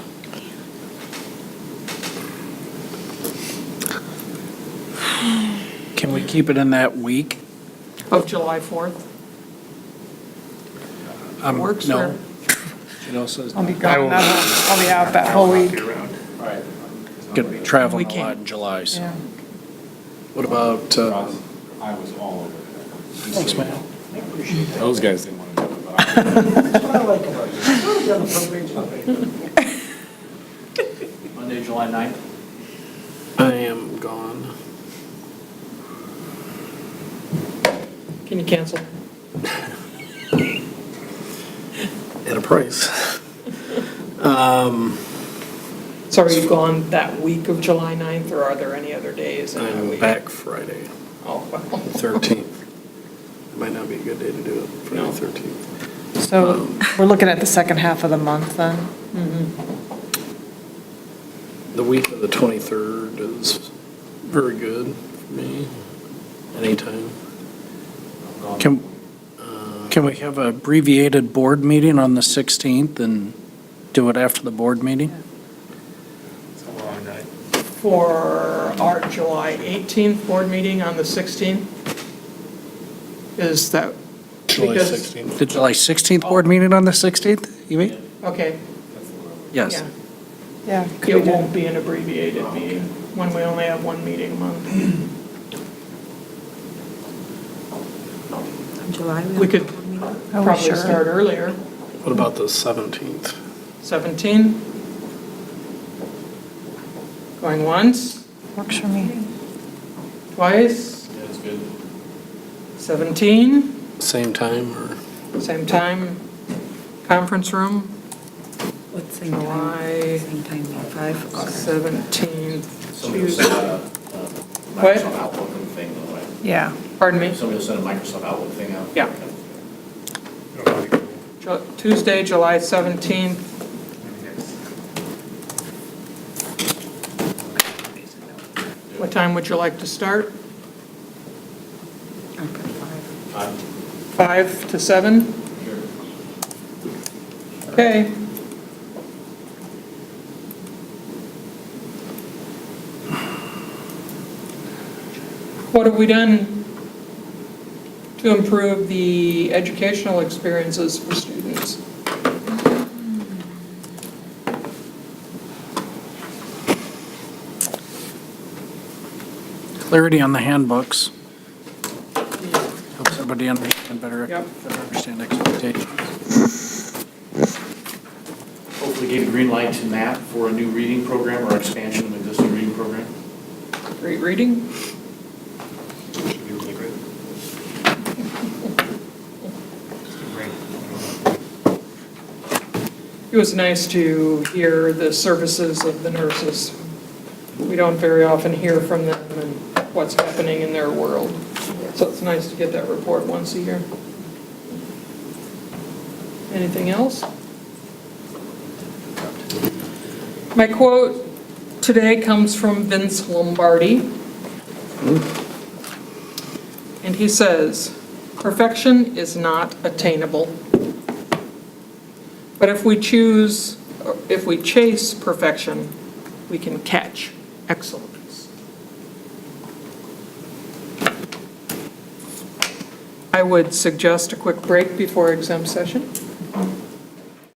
Can we keep it in that week? Of July 4th? Um, Works no. or- It also is I'll be gone, that whole- I'll be out that whole week. going to be traveling We a lot can't. in July, so. Yeah. What about, uh, I was all over that. thanks, man. Those guys didn't want to do it, but I. Monday, July 9th? I am gone. Can you cancel? At a price. Um, So are you gone that week of July 9th, or are there any other days in that I'm week? back Friday, Oh, well, the 13th. Might not be a good day to do it, Friday the 13th. So we're looking at the second half of the month then? Mm-hmm. The week of the 23rd is very good for me, anytime. Uh, Can, can we have a abbreviated board meeting on the 16th and do it after the board meeting? for our July 18th board meeting on the 16th? Is that? because- The July 16th board meeting on the 16th, you mean? Okay, Yes. yeah. Yeah. could we It do- won't be an abbreviated meeting, when we only have one meeting a month. In July, We could Are we probably sure? start earlier, What about the 17th? 17. Going once, Works for me. twice, That's good. 17. Same time or? Same time, conference room, What, same time? July Same time, five? Okay. 17th, Somebody will send Tuesday. a a What? Microsoft Outlook thing, though, right? Yeah. Pardon me, Somebody will send a Microsoft Outlook thing out. Yeah. Ju- Tuesday, July 17th, what time would you like to start? I'll put five. I'm 5 to 7? here. Okay. What have we done to improve the educational experiences for students? Clarity on the handbooks. Helps everybody understand better, Yep. better understand expectations. Hopefully gave a green light to MAP for a new reading program or expansion of existing reading program. Great reading? Should be really great. It was nice to hear the services of the nurses. We don't very often hear from them and what's happening in their world. So it's nice to get that report once a year. Anything else? My quote today comes from Vince Lombardi. And he says, "Perfection is not attainable." But if we choose, if we chase perfection, we can catch excellence. I would suggest a quick break before exempt session.